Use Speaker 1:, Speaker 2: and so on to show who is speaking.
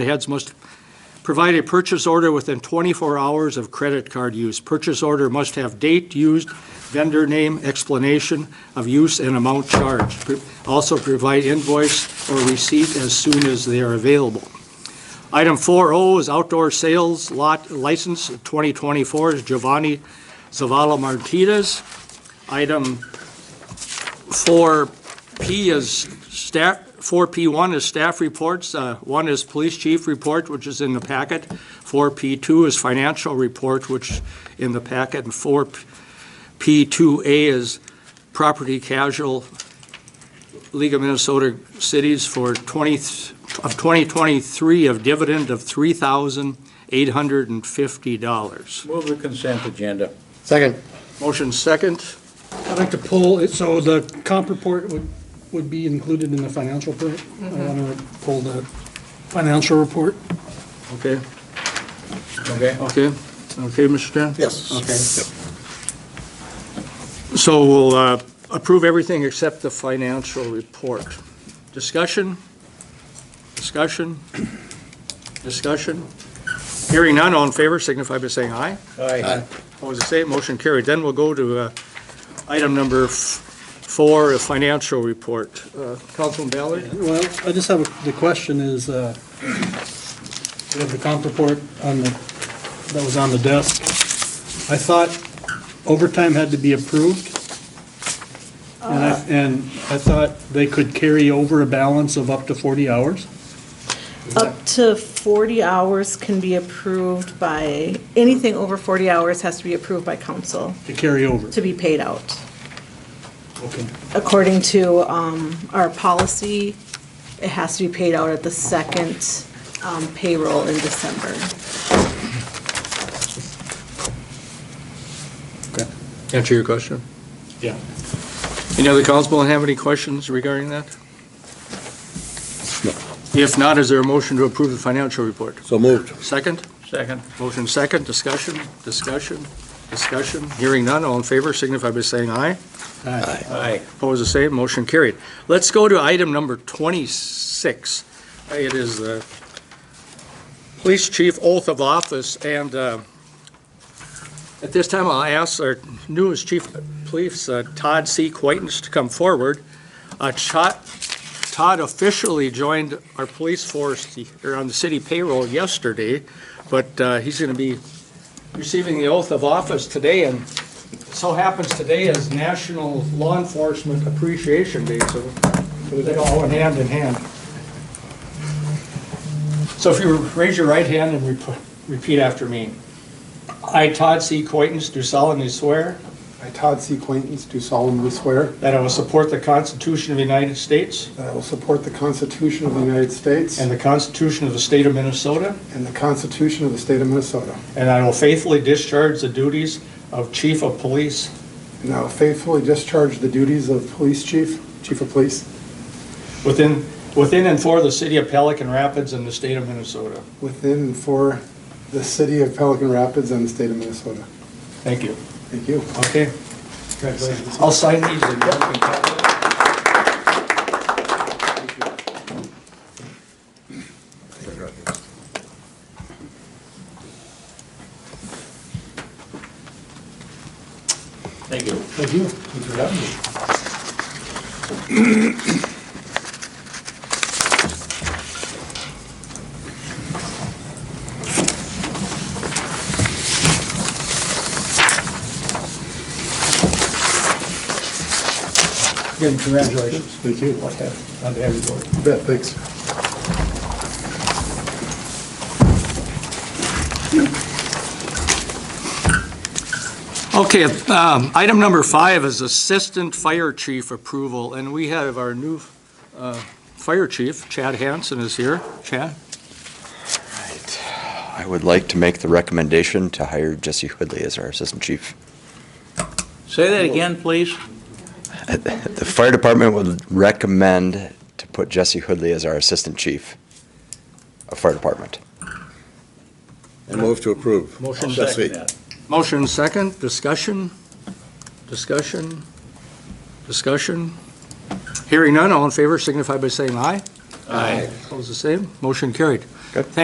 Speaker 1: The heads must provide a purchase order within 24 hours of credit card use. Purchase order must have date used, vendor name, explanation of use, and amount charged. Pro- Also provide invoice or receipt as soon as they are available. Item 4O is outdoor sales lot license 2024 is Giovanni Zavala Martinez. Item 4P is staff, 4P1 is staff reports, uh, one is police chief report, which is in the packet, 4P2 is financial report, which in the packet, and 4P2A is property casual League of Minnesota Cities for 20, of 2023 of dividend of $3,850.
Speaker 2: Move the consent agenda.
Speaker 3: Second.
Speaker 1: Motion second.
Speaker 4: I'd like to pull, it so the comp report would, would be included in the financial report. I want to pull the financial report.
Speaker 1: Okay,
Speaker 2: Okay?
Speaker 1: okay, okay, Mr. Chair?
Speaker 3: Yes.
Speaker 1: Okay. So we'll uh, approve everything except the financial report. Discussion? Discussion? Discussion? Hearing none, all in favor signify by saying aye.
Speaker 2: Aye.
Speaker 1: Opposed, the same, motion carried. Then we'll go to uh, item number f- four, a financial report. Uh, Councilman Ballard?
Speaker 4: Well, I just have, a- the question is, uh, we have the comp report on the, that was on the desk. I thought overtime had to be approved. And I, and I thought they could carry over a balance of up to 40 hours.
Speaker 5: Up to 40 hours can be approved by, anything over 40 hours has to be approved by council
Speaker 4: to carry over.
Speaker 5: to be paid out.
Speaker 4: Okay.
Speaker 5: According to um, our policy, it has to be paid out at the second um, payroll in December.
Speaker 1: Answer your question.
Speaker 4: Yeah.
Speaker 1: Any other councilman have any questions regarding that? If not, is there a motion to approve the financial report?
Speaker 3: So moved.
Speaker 1: Second?
Speaker 2: Second.
Speaker 1: Motion second, discussion, discussion, discussion. Hearing none, all in favor signify by saying aye.
Speaker 2: Aye.
Speaker 1: Opposed, the same, motion carried. Let's go to item number 26. It is the police chief oath of office, and uh, at this time, I'll ask our newest chief of police, uh, Todd C. Quaintance, to come forward. Uh, Cho- Todd officially joined our police force the- or on the city payroll yesterday, but uh, he's going to be receiving the oath of office today, and so happens today is National Law Enforcement Appreciation Day, so they all went hand in hand. So if you raise your right hand and rep- repeat after me. I, Todd C. Coitens, do solemnly swear
Speaker 6: I, Todd C. Quaintance, do solemnly swear
Speaker 1: that I will support the Constitution of the United States
Speaker 6: that I will support the Constitution of the United States
Speaker 1: and the Constitution of the State of Minnesota,
Speaker 6: and the Constitution of the State of Minnesota,
Speaker 1: and I will faithfully discharge the duties of Chief of Police
Speaker 6: and I will faithfully discharge the duties of Police Chief, Chief of Police,
Speaker 1: within, within and for the city of Pelican Rapids and the state of Minnesota.
Speaker 6: within and for the City of Pelican Rapids and the State of Minnesota.
Speaker 1: Thank you.
Speaker 6: Thank you.
Speaker 1: Okay. I'll sign these and you can copy.
Speaker 2: Thank you.
Speaker 6: Thank you. Thanks for having me.
Speaker 1: Again, congratulations.
Speaker 6: Thank you.
Speaker 1: Luck have- on behalf of the board.
Speaker 6: You bet, thanks.
Speaker 1: Okay, um, item number five is Assistant Fire Chief approval, and we have our new uh, Fire Chief, Chad Hanson, is here. Chad?
Speaker 7: I would like to make the recommendation to hire Jesse Hoodley as our assistant chief.
Speaker 2: Say that again, please.
Speaker 7: The fire department would recommend to put Jesse Hoodley as our assistant chief of fire department.
Speaker 3: I move to approve.
Speaker 1: Motion
Speaker 3: That's
Speaker 2: Second
Speaker 3: me.
Speaker 2: that.
Speaker 1: Motion second, discussion, discussion, discussion. Hearing none, all in favor signify by saying aye.
Speaker 2: Aye.
Speaker 1: Opposed, the same. Motion carried.
Speaker 7: Good.